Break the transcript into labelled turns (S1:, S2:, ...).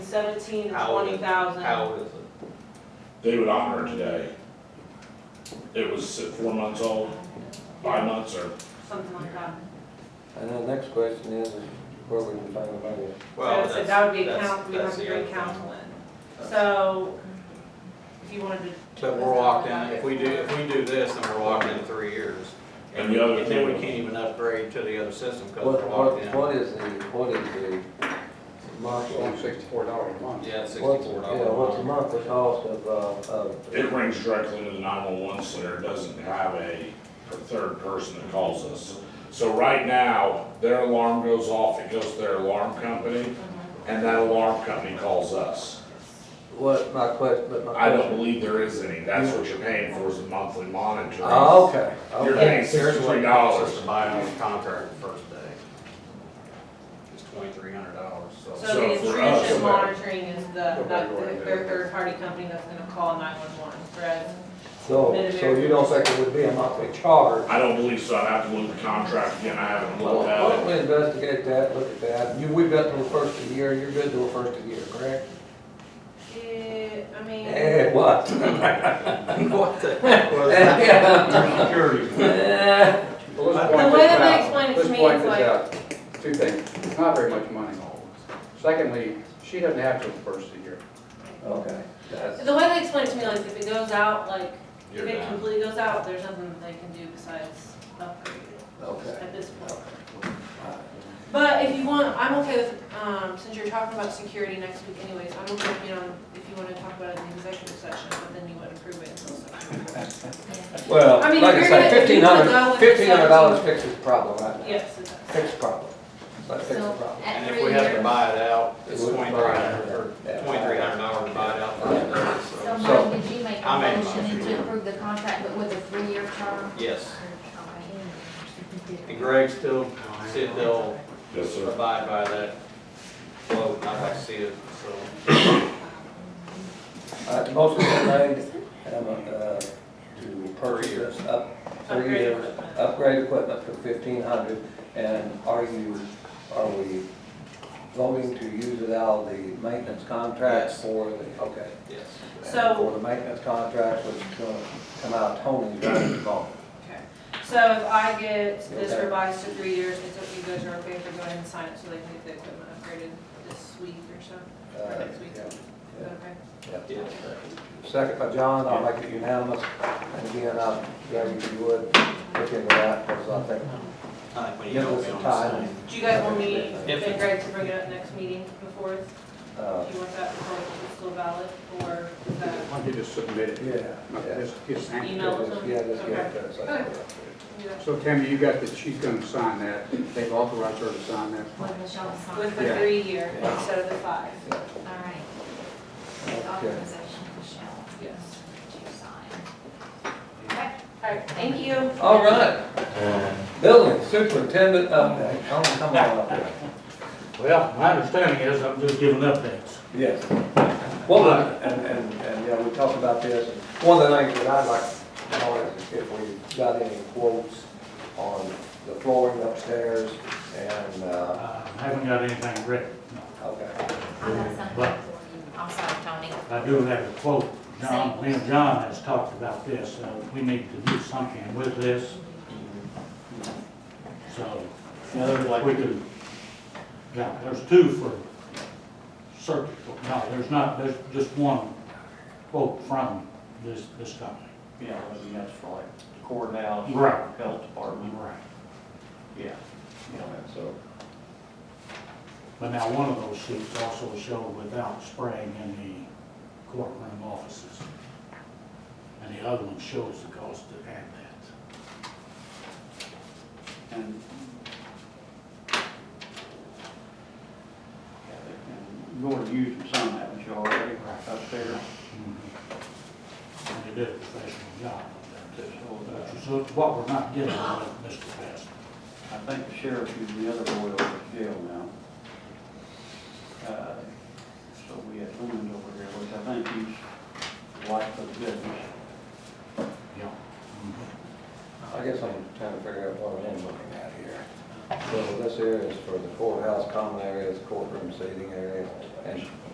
S1: seventeen to
S2: How old is
S1: twenty
S2: it?
S1: thousand.
S2: How old is it?
S3: They would honor it today. It was at four months old, five months or,
S1: Something like that.
S4: And the next question is, is where we can find the money?
S1: So
S2: Well,
S1: I
S2: that's-
S1: said that would be a
S2: that's-
S1: count, we
S2: that's
S1: have to
S2: the
S1: bring
S2: other
S1: council in.
S2: thing.
S1: So, if you wanted to,
S2: But we're locked in, if we do, if we do this, then we're locked in three years.
S3: And the other
S2: then we
S3: thing-
S2: can't even upgrade to the other system because
S4: What,
S2: we're locked
S4: what,
S2: in.
S4: what is the, what is the month?
S5: One sixty-four dollars a month.
S2: Yeah,
S4: What's,
S2: sixty-four
S4: yeah, what's a
S2: dollars.
S4: month the cost of, uh, of?
S3: it rings directly to the nine-one-one center, it doesn't have a third person that calls us. So right now, their alarm goes off, it goes to their alarm company, and that alarm company calls us.
S4: What, my question, but my
S3: I don't
S4: question.
S3: believe there is any, that's what you're paying for is a monthly monitoring.
S4: Oh, okay,
S3: You're
S4: okay.
S3: paying sixty-three dollars.
S2: To buy out the contract the first day. It's twenty-three hundred dollars, so.
S1: so the
S3: so for us-
S1: intrusion monitoring is the,
S5: Nobody
S1: that,
S5: go in
S1: the-
S5: there.
S1: their third party company that's gonna call nine one one, whereas
S4: So, so you don't think it would be a monthly charge?
S3: I don't believe so, I'd have to look at the contract again, I haven't
S4: Well,
S3: looked
S4: why
S3: at
S4: don't
S3: it.
S4: we investigate that, look at that, you, we've got till the first of the year, you're good till the first of the year, correct?
S1: it, I mean.
S4: Eh, what?
S2: What the?
S4: Eh,
S5: Well, let's
S2: The
S5: point
S1: way
S5: this
S1: that they
S5: out.
S1: explain it to
S5: Let's
S1: me,
S5: point
S1: it's
S5: this
S1: like-
S5: out. Two things, it's not very much money. Secondly, she doesn't have to the first of the year.
S4: Okay, that's,
S1: The way they explain it to me, like, if it goes out, like, if
S2: You're
S1: it
S2: down.
S1: completely goes out, there's nothing that they can do besides upgrade it
S4: okay.
S1: at this point.
S4: All right.
S1: But if you want, I'm okay with, um, since you're talking about security next week anyways, I'm okay, with, you know, if you wanna talk about it in the executive session, but then you wouldn't approve it until September.
S4: Well,
S1: I mean,
S4: like I
S1: if
S4: say,
S1: you're
S4: fifteen
S1: gonna- if
S4: hundred,
S1: you wanna go with the
S4: fifteen hundred dollars
S1: 17.
S4: fixes the problem right now.
S1: Yes, it does.
S4: Fix the problem. Let's fix the
S6: So
S4: problem.
S6: at
S2: And
S6: three
S2: if we have to
S6: years,
S2: buy it out, it's
S4: It would buy
S2: twenty-three
S4: it,
S2: hundred, or
S4: yeah.
S2: twenty-three hundred dollars to buy it out first day, so.
S6: so
S4: So-
S6: Mike, did you make
S2: I
S6: a
S2: made
S6: motion
S2: mine.
S6: to approve the contract, but with a three-year term?
S2: Yes,
S6: Okay.
S2: and Greg still, said they'll
S3: Yes, sir.
S2: abide by that flow, I'd like to see it, so.
S4: Uh, the motion is made, um, uh, to purchase
S2: years.
S4: this up, three
S1: Upgrade
S4: years,
S1: equipment.
S4: upgrade equipment for fifteen hundred. And are you, are we voting to use it out of the maintenance contract
S2: Yes.
S4: for the, okay.
S2: Yes.
S1: So-
S4: For the maintenance contract, which is gonna come out of Tony's right involved.
S1: Okay, so if I get this
S4: Okay.
S1: revised to three years, it's okay, you guys are okay to go ahead and sign it so they can get the equipment upgraded this week or so?
S4: Uh,
S1: Next week.
S4: yeah, yeah.
S1: Okay.
S2: Yes.
S4: Second by John, I'll make it unanimous, and again, I'll, yeah, if you would, look into that, because I think,
S2: I think we need
S4: give
S2: to
S4: us
S2: be
S4: some
S2: on the
S4: time.
S2: same.
S1: Do you guys want me
S2: If
S1: and Greg to bring it up next meeting before, do
S4: Uh,
S1: you want that before it's still valid, or is that?
S5: Why don't you just submit it?
S4: yeah, yeah.
S5: Just- just hand it to
S1: Email.
S5: her.
S4: Just- Yeah, just give it to us.
S1: Okay.
S5: So Tammy, you got that she's gonna sign that, they've authorized her to sign that.
S6: With Michelle signed.
S1: With the
S5: Yeah.
S1: three year
S4: Yeah.
S1: instead of the five,
S6: All right. With
S4: Okay.
S6: authorization, Michelle,
S1: yes.
S6: to sign. Okay.
S1: Alright, thank you.
S4: All right. Building superintendent update, come, come on up here.
S7: Well, my understanding is I'm just giving updates.
S4: Yes. Well, and, and, and, yeah, we talked about this, and one of the things that I'd like to know is if we got any quotes on the flooring upstairs and, uh,
S7: Uh, I haven't got anything written.
S4: okay,
S6: I got something for you. I'll sign Tony.
S7: I do have a quote. John, me and John has talked about this. Uh, we need to do something with this. So, we do. Yeah, there's two for surgical. No, there's not, there's just one quote from this, this company.
S8: Yeah, I mean, that's for like the courthouse,
S7: Right.
S8: health department,
S7: Right.
S8: yeah, you know,
S4: so.
S7: But now, one of those sheets also showed without spraying in the courtroom offices. And the other one shows the cost to add that.
S5: And
S8: yeah, they can go and use some of that, which you already upstairs.
S7: And they did a professional job up there too.
S8: So,
S7: Which is what we're not getting with Mr. Best.
S8: uh, I think the sheriff is the other boy over at jail now. Uh, So we had Lemon over here, which I think he's like the business.
S7: Yeah. Mm-hmm.
S4: I guess I'm trying to figure out what I'm looking at here. So this area is for the courthouse, common areas, courtroom seating area, and